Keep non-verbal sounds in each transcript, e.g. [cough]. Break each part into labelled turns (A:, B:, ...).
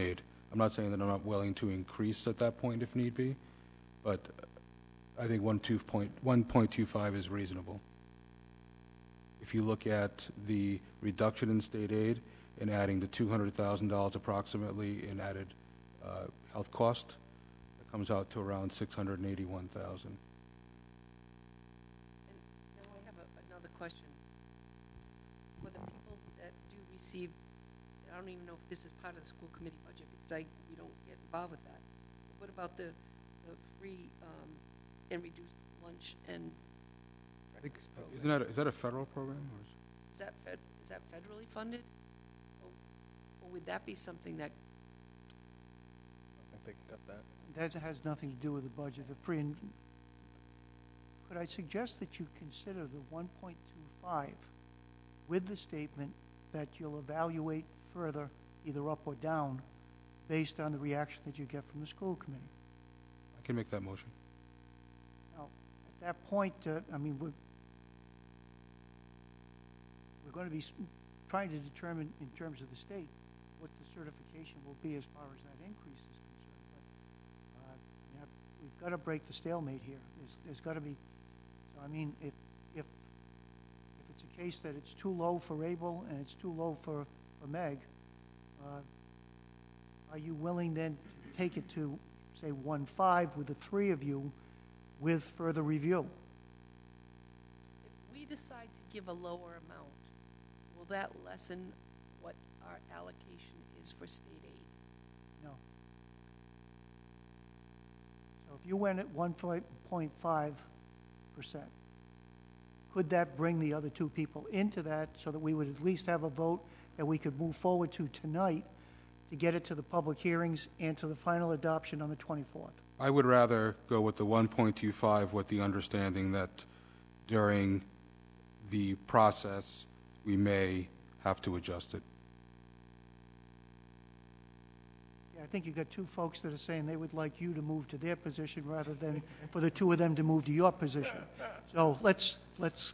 A: made. I'm not saying that I'm not willing to increase at that point if need be, but I think one two point, one point two five is reasonable. If you look at the reduction in state aid and adding the two hundred thousand dollars approximately in added, uh, health cost, it comes out to around six hundred and eighty-one thousand.
B: Now, I have a- another question. For the people that do receive, I don't even know if this is part of the school committee budget, because I, we don't get involved with that. But What about the, the free, um, and reduced lunch and breakfast
A: Isn't
B: program?
A: that, is that a federal program or is?
B: Is that fed, is that federally funded? Or- Or would that be something that,
C: I think they got that.
D: That has nothing to do with the budget, the free and, could I suggest that you consider the one point two five with the statement that you'll evaluate further, either up or down, based on the reaction that you get from the school committee?
A: I can make that motion.
D: At that point, uh, I mean, we're, we're gonna be s- trying to determine, in terms of the state, what the certification will be as far as that increase is concerned, but, uh, you know, we've gotta break the stalemate here, there's, there's gotta be, so I mean, if, if, if it's a case that it's too low for Abel and it's too low for, for Meg, uh, are you willing then to take it to, say, one-five with the three of you, with further review.
B: if we decide to give a lower amount, will that lessen what our allocation is for state aid?
D: No. So if you went at one point five percent, could that bring the other two people into that so that we would at least have a vote that we could move forward to tonight to get it to the public hearings and to the final adoption on the twenty-fourth?
A: I would rather go with the 1.25 with the understanding that during the process, we may have to adjust it.
D: Yeah, I think you've got two folks that are saying they would like you to move to their position rather than for the two of them to move to your position. So let's, let's,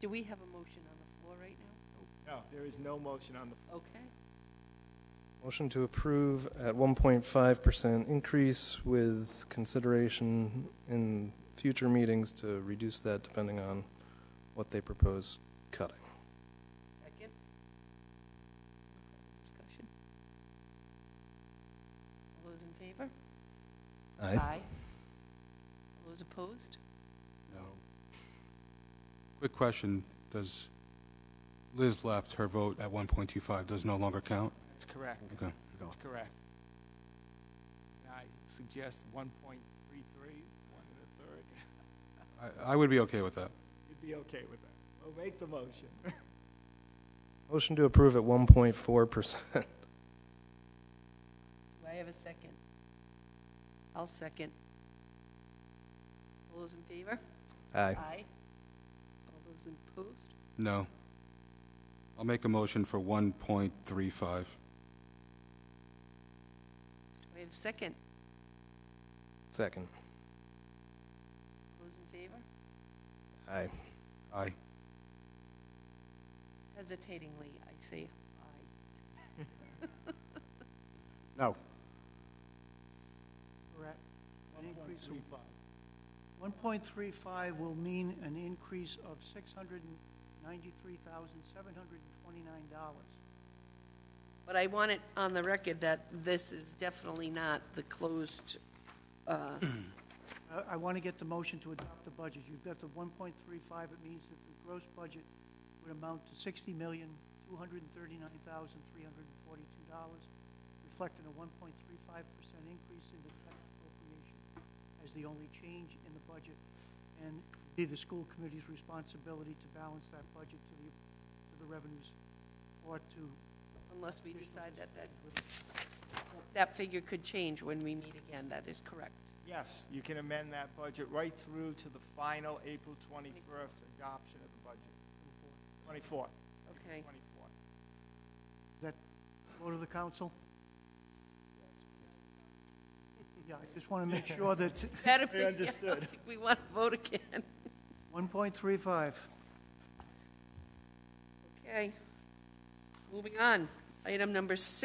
B: Do we have a motion on the floor right now?
E: No, there is no motion on the
B: Okay.
C: Motion to approve at 1.5% increase with consideration in future meetings to reduce that depending on what they propose cutting.
B: Second. Discussion. All those in favor? All those opposed?
A: No. Quick question, does, Liz left, her vote at 1.25 does no longer count?
E: That's correct.
A: Okay.
E: That's correct. And I suggest one point three three, one and a third.
A: I, I would be okay with that.
E: You'd be okay with that. Well, make the motion.
C: Motion to approve at 1.4%.
B: Do I have a second? I'll second. All those in favor?
C: Aye.
B: All those opposed?
A: No. I'll make a motion for 1.35.
B: Do I have a second?
C: Second.
B: All Those in favor?
C: Aye.
A: Aye.
B: Hesitatingly, I say aye.
E: No.
D: we're at an increase of
E: Three five.
D: 1.35 will mean an increase of $693,729.
B: But I want it on the record that this is definitely not the closed, uh,
D: Uh, I want to get the motion to adopt the budget. You've got the 1.35, it means that the gross budget would amount to $60,239,342, reflecting a 1.35% increase in the tax appropriation as the only change in the budget, and be the school committee's responsibility to balance that budget to the, to the revenues or to
B: unless we decide that that, that figure could change when we meet again. That is correct.
E: Yes, you can amend that budget right through to the final April twenty-first adoption of the budget. Twenty-fourth. [laughs]
B: Okay.
E: Twenty-fourth.
D: That vote of the council? Yeah, I just want to make sure that
B: Better [laughs] be,
E: I understood.
B: we want to vote again.
D: 1.35,
B: Okay. Moving on. Item number six.